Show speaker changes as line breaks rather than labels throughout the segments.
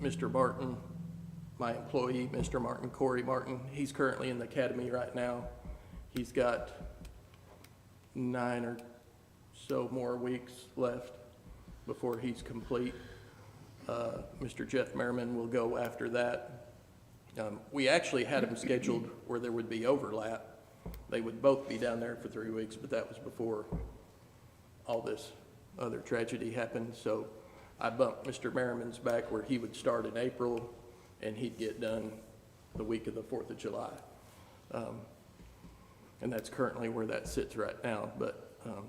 Mr. Martin, my employee, Mr. Martin, Corey Martin. He's currently in the academy right now. He's got nine or so more weeks left before he's complete. Uh, Mr. Jeff Merriman will go after that. Um, We actually had them scheduled where there would be overlap. They would both be down there for three weeks, but that was before all this other tragedy happened. So I bumped Mr. Merriman's back where he would start in April and he'd get done the week of the Fourth of July. Um, And that's currently where that sits right now, but, um,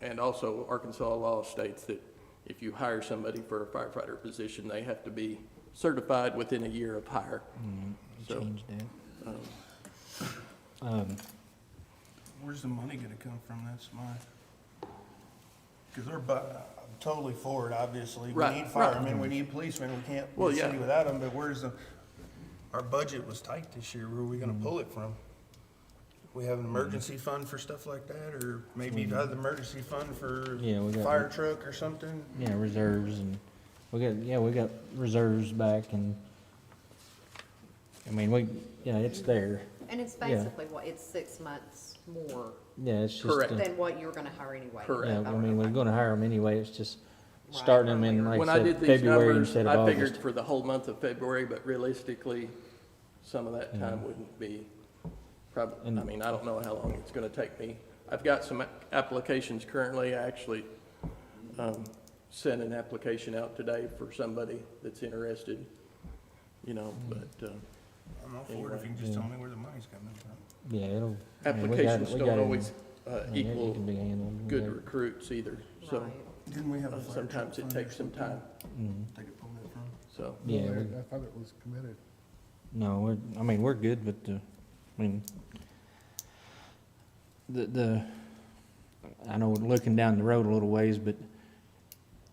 and also Arkansas law states that if you hire somebody for a firefighter position, they have to be certified within a year of hire. So-
Change that.
Where's the money gonna come from this, Mike? Cause they're, bu- I'm totally for it, obviously. We
Right,
need
right.
firemen, we need policemen, we can't
Well,
be a city
yeah.
without them, but where's the, our budget was tight this year, where are we gonna
Mm-hmm.
pull it from? We have an emergency fund for stuff like that, or maybe
Mm-hmm.
another emergency fund for
Yeah, we got-
fire truck or something?
Yeah, reserves and, we got, yeah, we got reserves back and, I mean, we, yeah, it's there.
And it's
Yeah.
basically what, it's six months more
Yeah, it's just.
Correct.
uh,
than what you were gonna hire anyway.
Correct.
Yeah, I mean, we're gonna hire them anyway, it's just
Right,
starting them in,
earlier.
like
When
I
I
said,
did these
February
numbers,
instead of
I figured
August.
for the whole month of February, but realistically, some of that time wouldn't be probably, I
And-
mean, I don't know how long it's gonna take me. I've got some applications currently, I actually, um, sent an application out today for somebody that's interested, you know,
Mm.
but, um,
I'm all for it, if you can just tell me where the money's coming from.
Yeah, it'll. I mean, we got it-
applications
we got
don't
it.
always, uh,
I mean, it- it
equal
can be handled. We
good
got it.
recruits either, so,
Right.
Didn't we have a
uh,
fire truck
sometimes it
fund or
takes some
something?
time,
Mhm.
They could pull that from?
so.
Yeah,
Well,
we-
I I thought it was committed.
No, we're, I mean, we're good, but the, I mean, the, the, I know we're looking down the road a little ways, but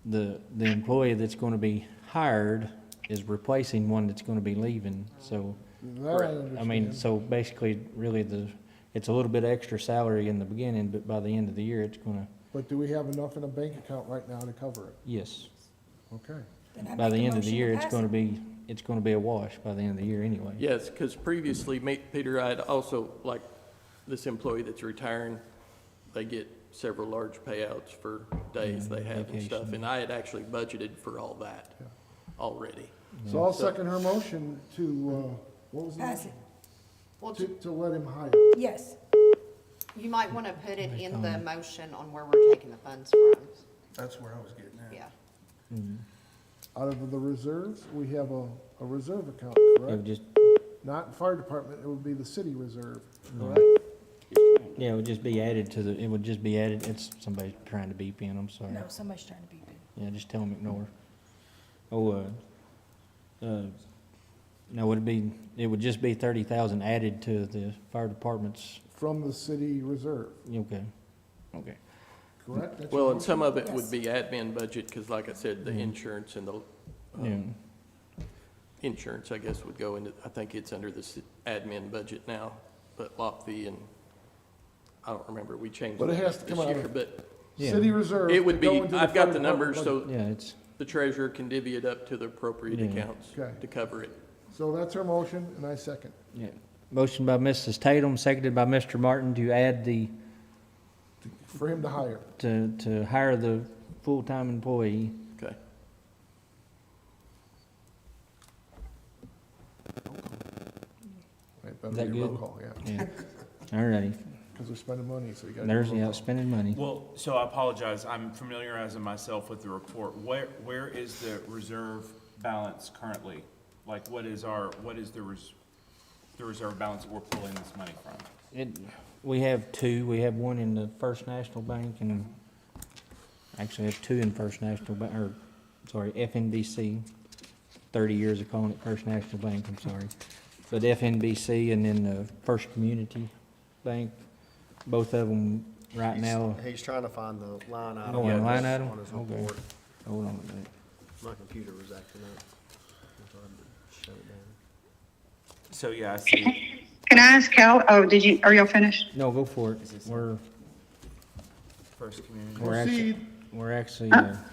the, the employee that's gonna be hired is replacing one that's gonna be leaving, so,
That I
Correct.
understand.
I mean, so basically, really the, it's a little bit extra salary in the beginning, but by the end of the year, it's gonna,
But do we have enough in a bank account right now to cover it?
yes.
Okay.
By the end of the year, it's gonna be, it's gonna be a wash by the end of the year anyway.
Yes, because previously, me- Peter, I'd also, like, this employee that's retiring, they get several large payouts for days
Yeah,
they have and stuff,
vacation.
and I had actually budgeted for all that
Yeah.
already.
So I'll second her motion to, uh, what was the
Pass
motion?
it,
Well,
To, to let him hire.
yes.
you might wanna put it in the motion on where we're taking the funds from,
That's where I was getting at.
yeah.
Out of the reserves, we have a, a reserve account,
It would
correct?
just,
Not in fire department, it would be the city reserve,
No.
correct?
Yeah, it would just be added to the, it would just be added, it's, somebody's trying to beep in, I'm sorry.
No, somebody's trying to beep it.
Yeah, just tell them ignore. Oh, uh, uh, no, it'd be, it would just be thirty thousand added to the fire department's,
From the city reserve,
okay, okay.
correct? That's your
Well, and
motion?
some of it would
Yes.
be admin budget, because like I said, the
Mhm.
insurance and the,
Yeah,
um, insurance, I guess, would go into, I think it's under the s- admin budget now, but Lofty and, I don't remember, we changed
But it
it
has to
this
come out of-
year, but
Yeah.
City reserve.
it
to
would be,
go into
I've
fire
got the
department
numbers,
budget.
so
yeah, it's,
the treasurer can divvy it up to the appropriate
Yeah.
accounts
Okay.
to cover it.
So that's her motion, and I second.
yeah. Motion by Mrs. Tatum, seconded by Mr. Martin to add the,
For him to hire.
to, to hire the full-time employee.
Okay.
Right, that'll
Is that
be a roll
good?
call, Yeah,
Yeah, all righty.
because we're spending money, so you gotta. do a
There's the
roll call.
outspending money.
Well, so I apologize, I'm familiarizing myself with the report. Where, where is the reserve balance currently? Like, what is our, what is the res, the reserve balance that we're pulling this money from?
It, we have two, we have one in the First National Bank and, actually have two in First National Bank, or, sorry, FNBC. Thirty years of calling it First National Bank, I'm sorry. But FNBC and then the First Community Bank, both of them right
He's-
now, uh,
He's trying to find the line item.
Oh, and line item?
On his
Okay.
report.
hold on a minute.
My computer was acting up. I thought I'd shut it down.
So, yeah, I see,
Can I ask how, oh, did you, are y'all finished?
No, go for it. We're,
First Community.
we're actually,
Proceed.
we're actually, uh,